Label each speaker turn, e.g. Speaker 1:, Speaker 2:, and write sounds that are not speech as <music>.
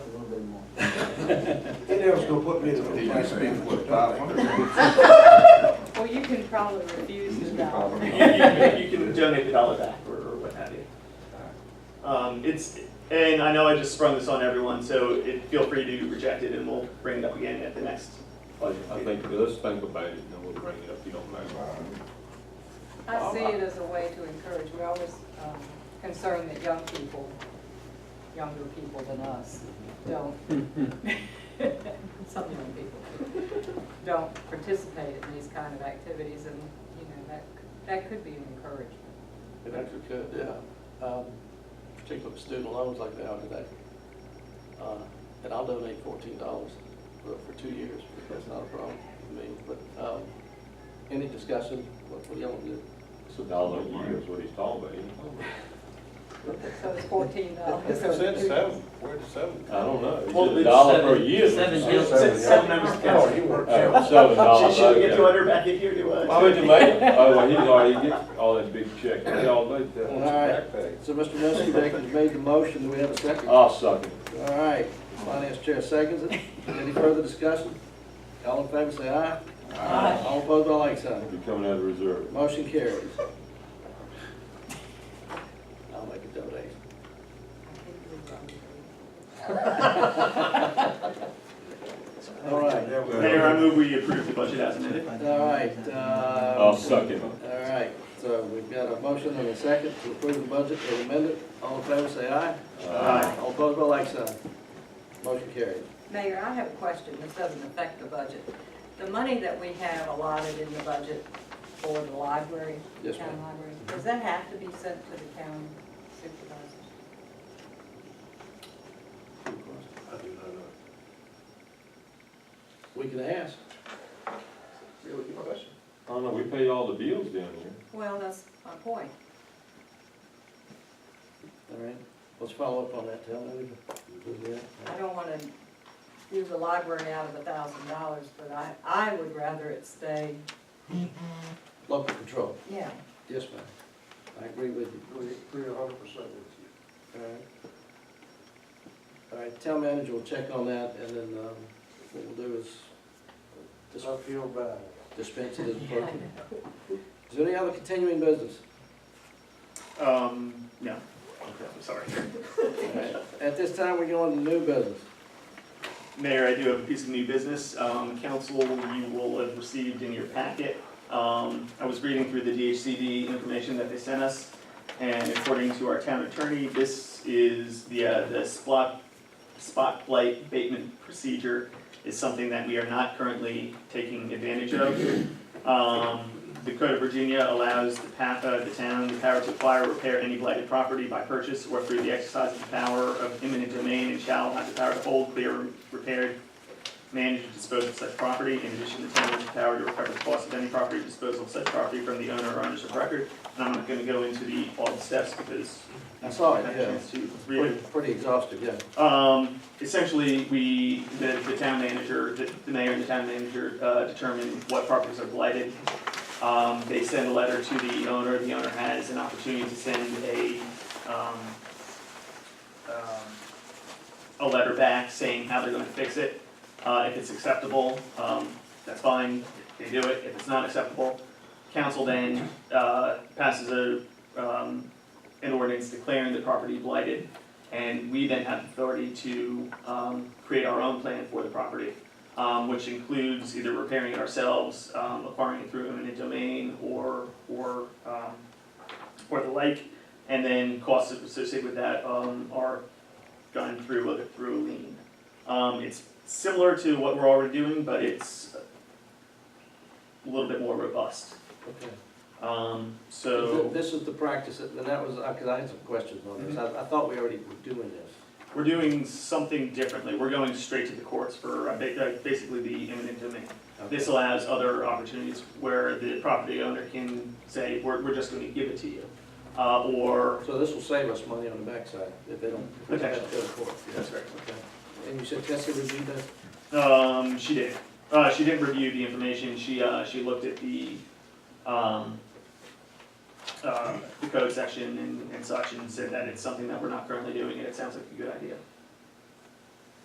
Speaker 1: They never was gonna put me in a
Speaker 2: Did you say, what, <laughs> five hundred?
Speaker 3: Well, you can probably refuse the
Speaker 2: Probably.
Speaker 3: <laughs> dollar.
Speaker 4: You can- you can donate the dollar back or or what have you. Um, It's, and I know I just sprung this on everyone, so it- feel free to reject it and we'll bring it up again at the next budget
Speaker 5: I
Speaker 4: meeting.
Speaker 5: think, let's think about it, and then we'll bring it up, if you don't mind.
Speaker 3: I see it as a way to encourage, we're always um, concerned that young people, younger people than us, don't, <laughs> some young people, don't participate in these kind of activities, and, you know, that, that could be an encouragement.
Speaker 6: It actually could, yeah. Um, Particularly with student loans like they are today. Uh, And I'll donate fourteen dollars for, for two years, that's not a problem to me, but, um, any discussion, what, what y'all want to do?
Speaker 5: It's a dollar a year is what he's talking about. isn't
Speaker 3: So it's fourteen dollars.
Speaker 5: it?
Speaker 2: where did seven?
Speaker 5: I don't know,
Speaker 4: Well,
Speaker 5: is it a
Speaker 4: it's
Speaker 5: dollar per
Speaker 4: seven-
Speaker 5: year?
Speaker 7: seven
Speaker 4: Since-
Speaker 7: deals.
Speaker 4: since Seven members of
Speaker 2: Oh,
Speaker 4: council.
Speaker 2: you worked
Speaker 5: Oh,
Speaker 2: seven.
Speaker 4: <laughs>
Speaker 5: Seven dollars.
Speaker 4: Should we get
Speaker 5: okay.
Speaker 4: two hundred back in here, do I?
Speaker 5: Why would you make it? Oh, well, he's already get all that big check, he already did
Speaker 6: All
Speaker 5: that.
Speaker 2: Back
Speaker 6: right,
Speaker 2: pay.
Speaker 6: so Mr. Muskie, you made the motion, do we have a second? All
Speaker 5: I'll suck it.
Speaker 6: right, finance chair seconds it, any further discussion? All in favor, say aye. Aye. All opposed, all like sign.
Speaker 5: You're coming out of reserve.
Speaker 6: Motion carries. I'll make a donation. All right,
Speaker 4: Mayor, I move we approve the budget as amended.
Speaker 6: all right, uh.
Speaker 5: I'll suck it.
Speaker 6: All right, so we've got a motion and a second to approve the budget as amended. All in favor, say aye.
Speaker 4: Aye.
Speaker 6: All opposed, by like sign. Motion carries.
Speaker 3: Mayor, I have a question, this doesn't affect the budget. The money that we have allotted in the budget for the library,
Speaker 6: Yes,
Speaker 3: town
Speaker 6: ma'am.
Speaker 3: library, does that have to be sent to the county supervisor?
Speaker 6: We can ask.
Speaker 4: Really good question.
Speaker 5: I don't know, we pay all the bills down here.
Speaker 3: Well, that's my point.
Speaker 6: All right, let's follow up on that, tell them.
Speaker 3: I don't want to do the library out of a thousand dollars, but I, I would rather it stay.
Speaker 6: Local control.
Speaker 3: Yeah.
Speaker 6: Yes, ma'am. I agree with you.
Speaker 1: We agree a hundred percent with you.
Speaker 6: All right. All right, town manager will check on that, and then, um, what we'll do is dis-
Speaker 1: Just I feel bad.
Speaker 6: dispense it as appropriate. Is there any other continuing business?
Speaker 4: Um, no, I'm sorry.
Speaker 6: All right. At this time, we're going to new business.
Speaker 4: Mayor, I do have a piece of new business. Um, Council, you will have received in your packet. Um, I was reading through the DHCD information that they sent us, and according to our town attorney, this is the, uh, the spot, spotlight abatement procedure is something that we are not currently taking advantage of. Um, the Code of Virginia allows the PAPA, the town, the power to acquire, or repair any blighted property by purchase or through the exercise of the power of eminent domain and shall have the power to hold, clear, repair, manage, and dispose of such property. In addition, the town has the power to recover the cost of any property disposal of such property from the owner or owners of record. And I'm not gonna go into the all the steps because
Speaker 6: I saw it,
Speaker 4: I had a
Speaker 6: yeah.
Speaker 4: chance to read it.
Speaker 6: Pretty pretty exhaustive, yeah.
Speaker 4: Um, essentially, we, the, the town manager, the the mayor and the town manager, uh, determine what properties are blighted. Um, they send a letter to the owner, the owner has an opportunity to send a, um, um, a letter back saying how they're gonna fix it. Uh, if it's acceptable, um, that's fine, they do it, if it's not acceptable, council then, uh, passes a, um, an ordinance declaring the property blighted. And we then have authority to um, create our own plan for the property, um, which includes either repairing it ourselves, um, acquiring it through eminent domain, or, or, um, or the like. And then costs associated with that um, are done through, a- through a lien. Um, It's similar to what we're already doing, but it's a little bit more robust.
Speaker 6: Okay.
Speaker 4: Um,
Speaker 6: Th-
Speaker 4: So
Speaker 6: This is the practice, and that was, because I had some questions on this. I I thought we already were doing this.
Speaker 4: we're doing something differently. We're going straight to the courts for uh, ba- uh, basically the eminent domain.
Speaker 6: Okay.
Speaker 4: This allows other opportunities where the property owner can say, we're, we're just gonna give it to you. Uh, or,
Speaker 6: So this will save us money on the backside if they don't. if we have to go to court.
Speaker 4: that's right.
Speaker 6: Okay. And you said Tessa reviewed that?
Speaker 4: Um, she did. Uh, she didn't review the information. She, uh, she looked at the, um, uh, the code section and, and such and said that it's something that we're not currently doing and it sounds like a good idea.